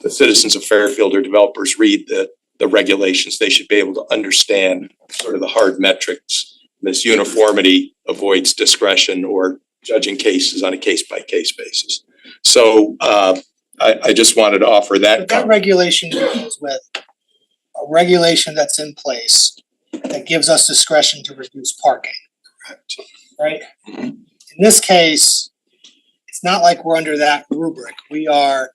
the citizens of Fairfield or developers read the, the regulations, they should be able to understand sort of the hard metrics. This uniformity avoids discretion or judging cases on a case-by-case basis. So, uh, I, I just wanted to offer that. But that regulation deals with a regulation that's in place that gives us discretion to reduce parking. Correct. Right? Mhm. In this case, it's not like we're under that rubric. We are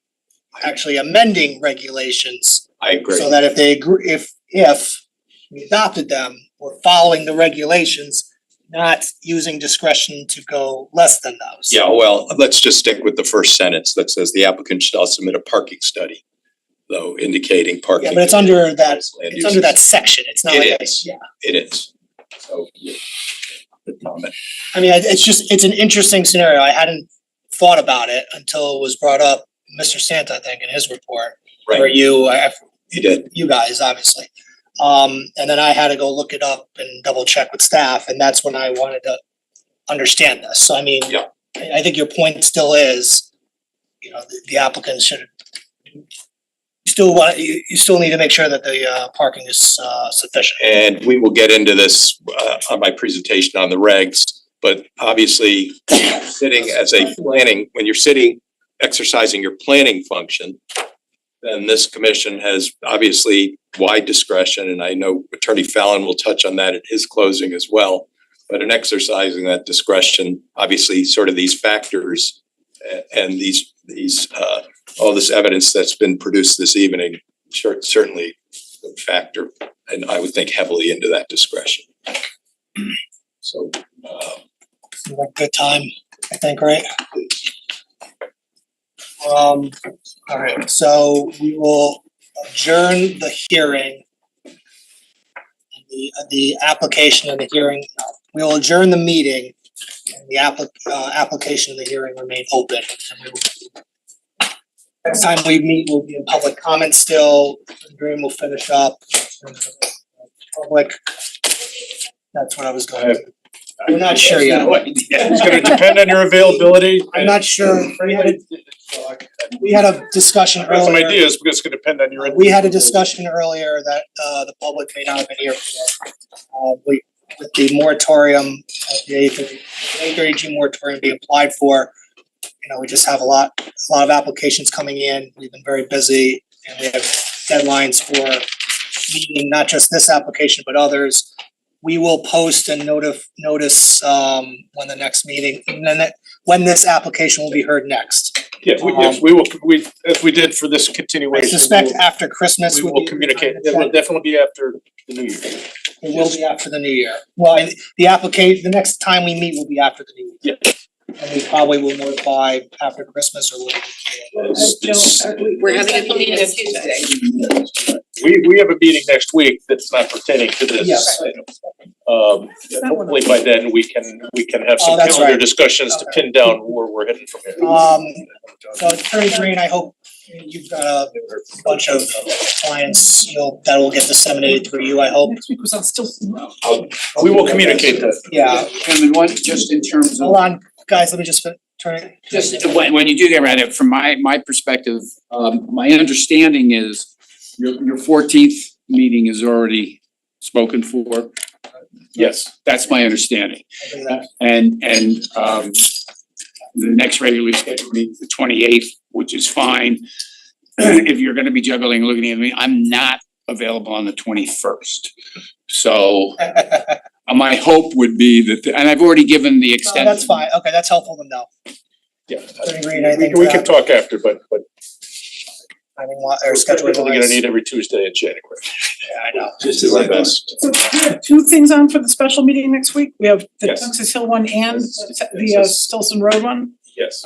actually amending regulations I agree. so that if they agree, if, if we adopted them, we're following the regulations, not using discretion to go less than those. Yeah, well, let's just stick with the first sentence that says the applicant shall submit a parking study, though indicating parking. Yeah, but it's under that, land it's under that uses. section. It's not It like, a- is. yeah. It is. So, yeah. Good comment. I mean, it- it's just, it's an interesting scenario. I hadn't thought about it until it was brought up, Mr. Santa, I think, in his report. Or Right, you, I, I- you did. you guys, obviously. Um, and then I had to go look it up and double check with staff, and that's when I wanted to understand this. So I mean, Yeah. I, I think your point still is, you know, the- the applicant should you still want, you, you still need to make sure that the, uh, parking is, uh, sufficient. And we will get into this uh on my presentation on the regs, but obviously sitting as a planning, when you're sitting exercising your planning function, then this commission has obviously wide discretion, and I know Attorney Fallon will touch on that at his closing as well. But in exercising that discretion, obviously sort of these factors a- and these these uh all this evidence that's been produced this evening cer- certainly factor and I would think heavily into that discretion. So, uh, Seems like a Good time, I think, right? Um, all right, so we will adjourn the hearing. and The, the application and the hearing, we will adjourn the meeting. and The applic- uh, application and the hearing remain open. and we will- Next time we meet, we'll be in public comment still, Dream will finish up. Public. That's what I was going to. I'm not sure yet. It's gonna depend on your availability. I'm not sure, we had a, we had a discussion I got some earlier, ideas, but it's gonna depend on your. we had a discussion earlier that, uh, the public may not have been here for that. Uh, we, with the moratorium, of the A thirty, A thirty G moratorium being applied for, you know, we just have a lot, a lot of applications coming in, we've been very busy, and we have deadlines for meeting not just this application, but others. We will post and notif- notice, um, when the next meeting, and then, that- when this application will be heard next. Yeah, we, yes, we will, we, as we did for this I continuation. suspect we'll- after Christmas We would will be- communicate. It will It definitely be after the new year. will be after the new year. Well, I- the application, the next time we meet will be after the new year. And we probably will notify after Christmas or whatever. We're having a meeting on Tuesday. We, we have a meeting next week that's not pertaining to this. Yeah. Um, hopefully by then we can, we can have Oh, some that's calendar right. discussions to Okay. pin down where we're heading from here. Um, so Attorney Green, I hope you've got a bunch of clients, you'll, that will get disseminated through you, I hope. Next week was on Stilson Road. We will communicate that. Yeah, Chairman, one, just in terms hold of, on, guys, let me just fin- turn it. just when when you do get around it, from my my perspective, um my understanding is your your fourteenth meeting is already spoken for. Yes. That's my understanding. I'll do that. And and um the next regularly scheduled meeting is the twenty eighth, which is fine. If you're gonna be juggling, looking at me, I'm not available on the twenty first. So uh, my hope would be that, and I've already given the No, extent. That's fine, okay, that's helpful to know. Yeah. Attorney Green, I We think uh, can, we can that, talk after, but, but I mean, wa- or we're scheduling. definitely gonna need every Tuesday in January. Yeah, I know. just do our best. So we have two things on for the special meeting next week. We have the Yes. Texas Hill one and the uh, Stilson Road one. Yes.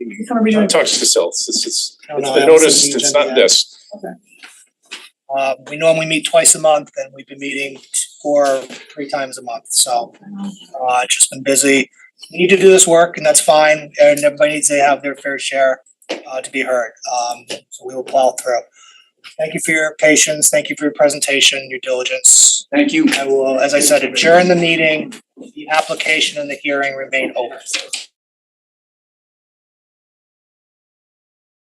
We're gonna be doing- Talk to yourself. It's, it's, Oh, I don't it's know, the I haven't seen notice, the it's agenda not yet. this. Uh, we normally meet twice a month and we've been meeting four, three times a month, so, uh, it's just been busy. We Need to do this work and that's fine, and everybody needs to have their fair share, uh, to be heard, um, so we will plow through. Thank you for your patience, thank you for your presentation, your diligence. Thank you. I will, as I said, adjourn the meeting, the application and the hearing remain open.